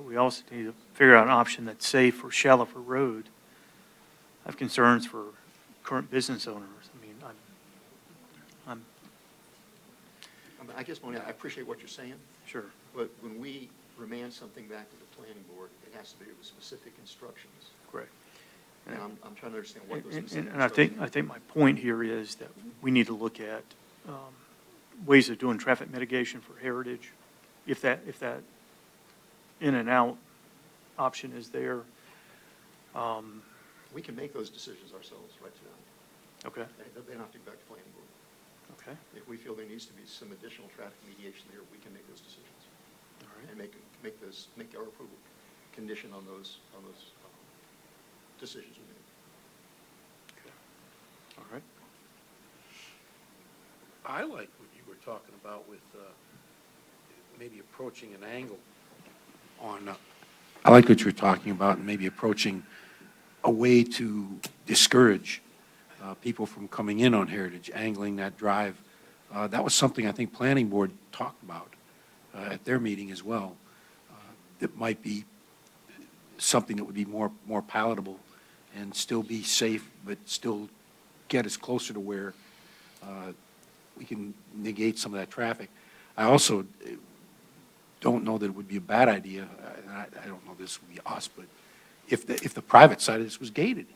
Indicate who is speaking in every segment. Speaker 1: we also need to figure out an option that's safe for Shallifer Road. I have concerns for current business owners. I mean, I'm, I'm
Speaker 2: I mean, I guess, Monia, I appreciate what you're saying,
Speaker 1: sure.
Speaker 2: but when we remand something back to the planning board, it has to be with specific instructions.
Speaker 1: Correct.
Speaker 2: And I'm, I'm trying to understand Um, what
Speaker 1: And,
Speaker 2: those
Speaker 1: and-
Speaker 2: specific
Speaker 1: and I think, I
Speaker 2: instructions
Speaker 1: think my point here is that we need to look at um, ways of doing traffic mitigation for heritage, if that, if that in and out option is there. Um,
Speaker 2: are. We can make those decisions ourselves right tonight.
Speaker 1: Okay,
Speaker 2: They- They don't have to go back to planning board.
Speaker 1: okay, all
Speaker 2: If we feel there needs to be some additional traffic mediation there, we can make those decisions and
Speaker 1: right.
Speaker 2: make, make those, make our approval condition on those, on those um, decisions we make.
Speaker 1: okay, All right,
Speaker 3: I like what you were talking about with uh, maybe approaching an angle on, uh, I like what you were talking about, and maybe approaching a way to discourage uh, people from coming in on Heritage, angling that drive. Uh, That was something I think Planning Board talked about uh, at their meeting as well. Uh, That might be something that would be more, more palatable and still be safe, but still get us closer to where uh, we can negate some of that traffic. I also eh, don't know that it would be a bad idea, uh, and I, I don't know this would be us, but if the, if the private side of this was gated,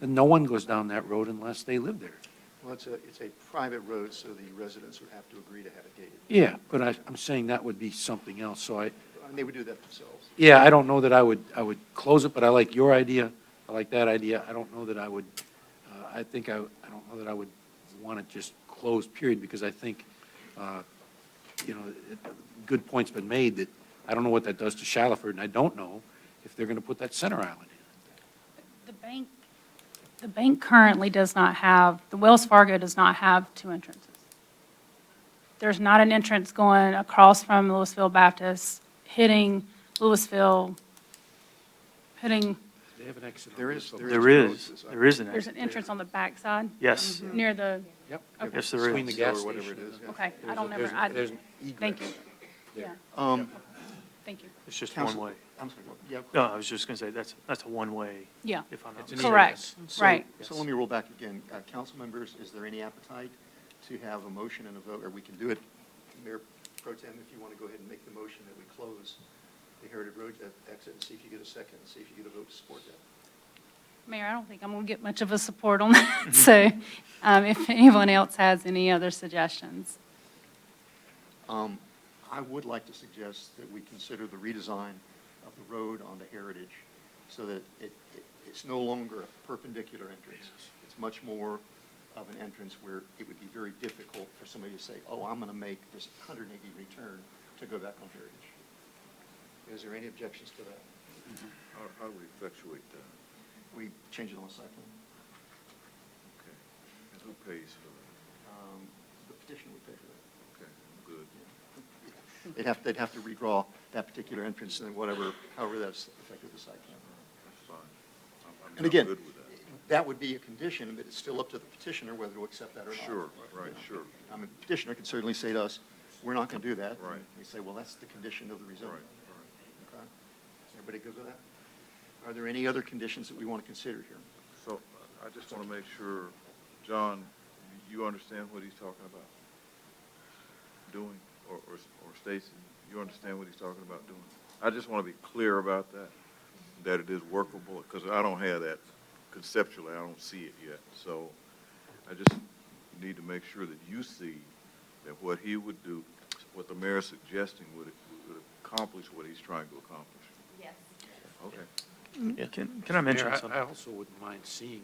Speaker 3: then no one goes down that road unless they live there.
Speaker 2: Well, it's a, it's a private road, so the residents would have to agree to have it gated.
Speaker 3: Yeah, but I, I'm saying that would be something else, so I,
Speaker 2: And they would do that themselves.
Speaker 3: yeah, I don't know that I would, I would close it, but I like your idea, I like that idea, I don't know that I would, uh, I think I, I don't know that I would want it just closed, period, because I think, uh, you know, it- good point's been made that I don't know what that does to Shaliford, and I don't know if they're gonna put that center island in.
Speaker 4: The bank, the bank currently does not have, the Wells Fargo does not have two entrances. There's not an entrance going across from Louisville Baptist, hitting Louisville, hitting,
Speaker 3: They have an exit. on
Speaker 2: There
Speaker 3: this
Speaker 2: is-
Speaker 3: over
Speaker 2: there
Speaker 1: there
Speaker 2: is
Speaker 1: is,
Speaker 2: roads.
Speaker 1: there is an
Speaker 4: there's an
Speaker 1: exit.
Speaker 4: entrance on the backside?
Speaker 1: Yes,
Speaker 4: Near the,
Speaker 3: Yep.
Speaker 4: Okay.
Speaker 1: Yes, there is.
Speaker 3: Between the gas
Speaker 2: Or whatever it
Speaker 3: station
Speaker 2: is,
Speaker 3: and
Speaker 2: yeah.
Speaker 3: the-
Speaker 4: okay, I
Speaker 3: there's a-
Speaker 4: don't
Speaker 3: there's
Speaker 4: never,
Speaker 3: a-
Speaker 4: I,
Speaker 3: There's an
Speaker 4: thank you,
Speaker 3: egress
Speaker 4: yeah,
Speaker 3: there.
Speaker 2: Um,
Speaker 4: thank you,
Speaker 1: it's just one
Speaker 2: Counsel-
Speaker 1: way.
Speaker 2: I'm sorry, yeah.
Speaker 1: No, I was just going to say, that's, that's a one-way,
Speaker 4: yeah,
Speaker 1: if I'm not
Speaker 3: It's an
Speaker 1: mistaken.
Speaker 4: correct,
Speaker 3: egress.
Speaker 2: So-
Speaker 4: right.
Speaker 2: So let me roll back again. Uh, Council members, is there any appetite to have a motion and a vote, or we can do it, Mayor Pro Tem, if you want to go ahead and make the motion that we close the Heritage Road e- exit, and see if you get a second, and see if you get a vote to support that.
Speaker 4: Mayor, I don't think I'm going to get much of a support on that, so um, if anyone else has any other suggestions.
Speaker 2: Um, I would like to suggest that we consider the redesign of the road onto Heritage, so that it, it- it's no longer a perpendicular entrance. It's much more of an entrance where it would be very difficult for somebody to say, oh, I'm going to make this 180 return to go back on Heritage. Is there any objections to that?
Speaker 5: How, how do we effectuate that?
Speaker 2: We change it on the site plan.
Speaker 5: Okay. And who pays for that?
Speaker 2: Um, The petition would pay for that.
Speaker 5: Okay, good.
Speaker 2: They'd have, they'd have to redraw that particular entrance and then whatever, however that's affected the site plan.
Speaker 5: That's fine. I'm- I mean,
Speaker 2: And
Speaker 5: I'm
Speaker 2: again,
Speaker 5: good with that.
Speaker 2: that would be a condition, but it's still up to the petitioner whether to accept that or not.
Speaker 5: Sure, right, sure.
Speaker 2: I mean, petitioner could certainly say to us, we're not going to do that.
Speaker 5: Right.
Speaker 2: And We say, well, that's the condition of the rezoning.
Speaker 5: Right, right.
Speaker 2: Okay? Everybody good with that? Are there any other conditions that we want to consider here?
Speaker 5: So I I just want to make sure, John, you understand what he's talking about doing? Or, or or Stacy, you understand what he's talking about doing? I just want to be clear about that, that it is workable, because I don't have that conceptually, I don't see it yet. So I just need to make sure that you see that what he would do, what the mayor's suggesting would, would accomplish what he's trying to accomplish.
Speaker 6: Yes.
Speaker 5: Okay.
Speaker 1: Can, can I mention
Speaker 3: Mayor, I-
Speaker 1: something?
Speaker 3: I also wouldn't mind seeing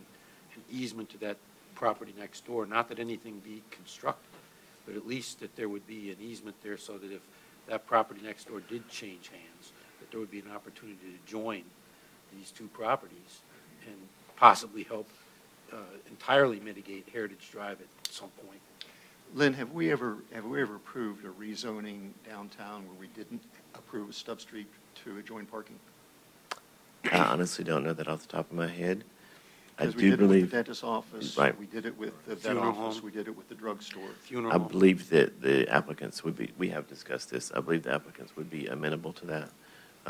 Speaker 3: an easement to that property next door, not that anything be constructed, but at least that there would be an easement there so that if that property next door did change hands, that there would be an opportunity to join these two properties and possibly help uh, entirely mitigate Heritage Drive at some point.
Speaker 2: Lynn, have we ever, have we ever approved a rezoning downtown where we didn't approve a stub street to adjoin parking?
Speaker 7: I honestly don't know that off the top of my head. I
Speaker 2: Because we
Speaker 7: do
Speaker 2: did it with
Speaker 7: believe,
Speaker 2: the dentist office.
Speaker 7: Right.
Speaker 2: We did it with the vet
Speaker 3: Funeral
Speaker 2: office.
Speaker 3: home.
Speaker 2: We did it with the drugstore.
Speaker 3: Funeral.
Speaker 7: I believe that the applicants would be, we have discussed this, I believe the applicants would be amenable to that.